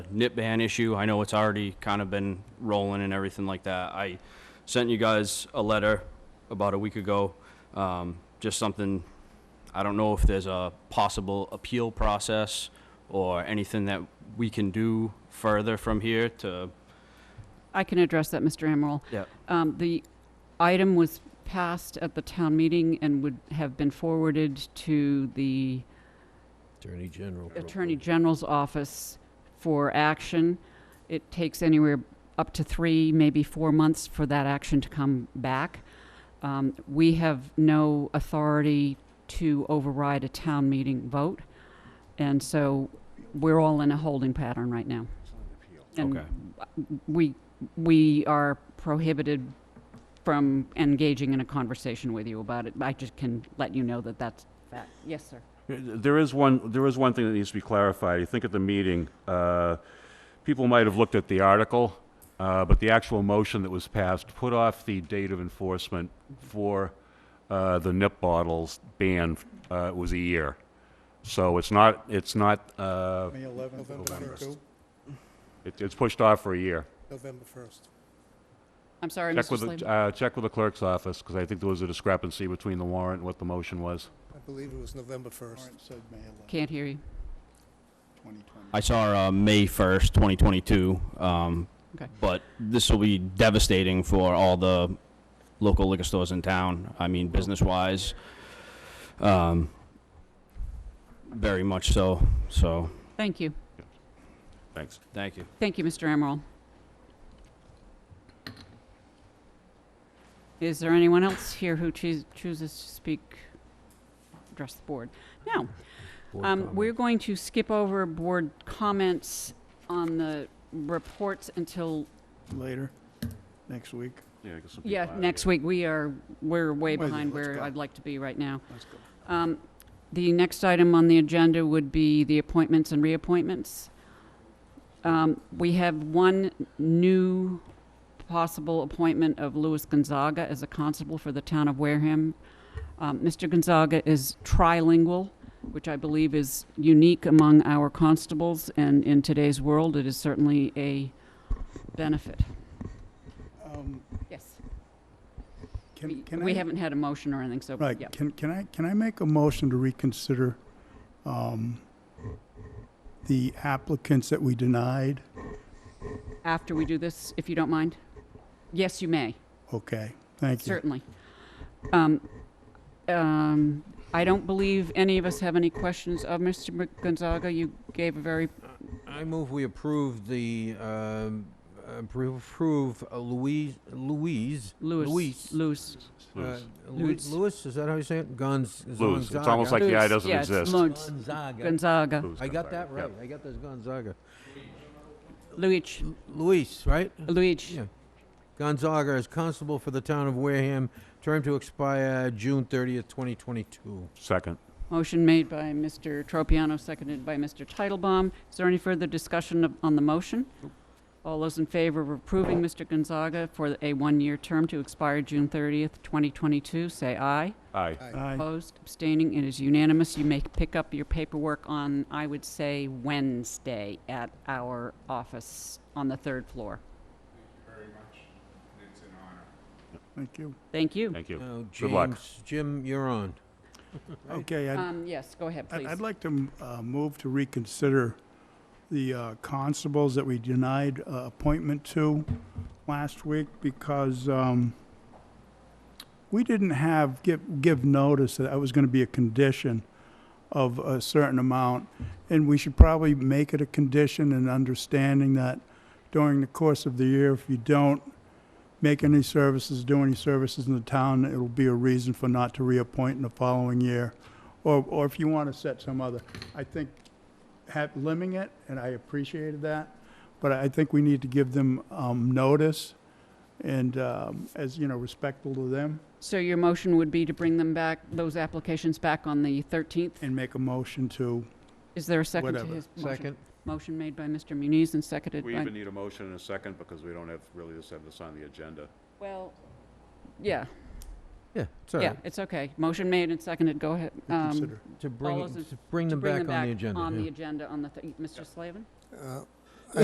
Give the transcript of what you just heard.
nip ban issue, I know it's already kind of been rolling and everything like that. I sent you guys a letter about a week ago, um, just something, I don't know if there's a possible appeal process or anything that we can do further from here to, I can address that, Mr. Amaral. yeah, Um, The item was passed at the town meeting and would have been forwarded to the Attorney General. Attorney General's office for action. It takes anywhere up to three, maybe four months for that action to come back. Um, We have no authority to override a town meeting vote, and so we're all in a holding pattern right now. And Okay. we, we are prohibited from engaging in a conversation with you about it. I just can let you know that that's fact. Yes, sir. There is one, there is one thing that needs to be clarified. I think at the meeting, uh, people might have looked at the article, uh, but the actual motion that was passed put off the date of enforcement for uh, the nip bottles ban uh, was a year. So it's not, it's not, uh, May 11th, November. November 1st. it- it's pushed off for a year. November 1st. I'm sorry, Check Mr. with, the- Slavin. uh, check with the clerk's office, because I think there was a discrepancy between the warrant and what the motion was. I believe it was November 1st. said May 11, Can't hear you. 2020. I saw uh, May 1st, 2022, um, Okay. but this will be devastating for all the local liquor stores in town. I mean, business-wise, um, very much so, so, Thank you. Thanks. thank you. Thank you, Mr. Emerald. Is there anyone else here who choos- chooses to speak, address the board? No. Um, We're going to skip over board comments on the reports until, Later, next week. Yeah, I guess some yeah, people are- next week. We are, we're way Well, behind let's where go. I'd like to be right now. Let's go. Um, The next item on the agenda would be the appointments and reappointments. Um, We have one new possible appointment of Louis Gonzaga as a constable for the town of Wareham. Um, Mr. Gonzaga is trilingual, which I believe is unique among our constables, and in today's world, it is certainly a benefit. Um, Yes. Can, can I? We haven't had a motion or anything, so, yeah. Right, can, can I, can I make a motion to reconsider, um, the applicants that we denied? After we do this, if you don't mind? Yes, you may. Okay, thank you. Certainly. Um, um, I don't believe any of us have any questions of Mr. Mc- Gonzaga. You gave a very, I move we approve the, um, appro- approve uh, Louise, Louise. Louis. Luis. Louis. uh, Lose. Lu- Luis. Louis, is that how you say it? Gonz. Lose. It's Gonzaga. almost like the Lose, eye doesn't yeah, it's exist. Lou- Gonzaga. Gonzaga. Lose I got that Gonzaga, yeah. right. I got this Gonzaga. Luigi. Luis, right? Luigi. Yeah. Gonzaga is constable for the town of Wareham, term to expire June 30th, 2022. Second. Motion made by Mr. Tropiano, seconded by Mr. Titlebaum. Is there any further discussion of- on the motion? All those in favor of approving Mr. Gonzaga for a one-year term to expire June 30th, 2022, say aye. Aye. Aye, Opposed, abstaining, it is unanimous. You may pick up your paperwork on, I would say, Wednesday at our office on the third floor. thank you. Thank you. Thank you. Now, Good luck. James, Jim, you're on. Okay, I'd, Um, yes, go ahead, I'd- please. I'd like to uh, move to reconsider the uh, constables that we denied uh, appointment to last week because um, we didn't have, give, give notice that that was going to be a condition of a certain amount. And we should probably make it a condition and understanding that during the course of the year, if you don't make any services, do any services in the town, it'll be a reason for not to reappoint in the following year or, or if you want to set some other, I think, have, limiting it, and I appreciated that, but I think we need to give them, um, notice and, um, as, you know, respectful to them So your motion would be to bring them back, those applications back on the 13th? and make a motion to, Is there a second to Whatever. his motion? Second. Motion made by Mr. Muniz and seconded We by... even need a motion in a second because we don't have, really just have this on the agenda. Well, yeah, Yeah, sorry. yeah, it's okay. Motion made and seconded, go ahead. Um, consider. To bring, those in- to bring them back on the agenda. To bring them back on the yeah. agenda on the, th- Mr. Slavin? Uh,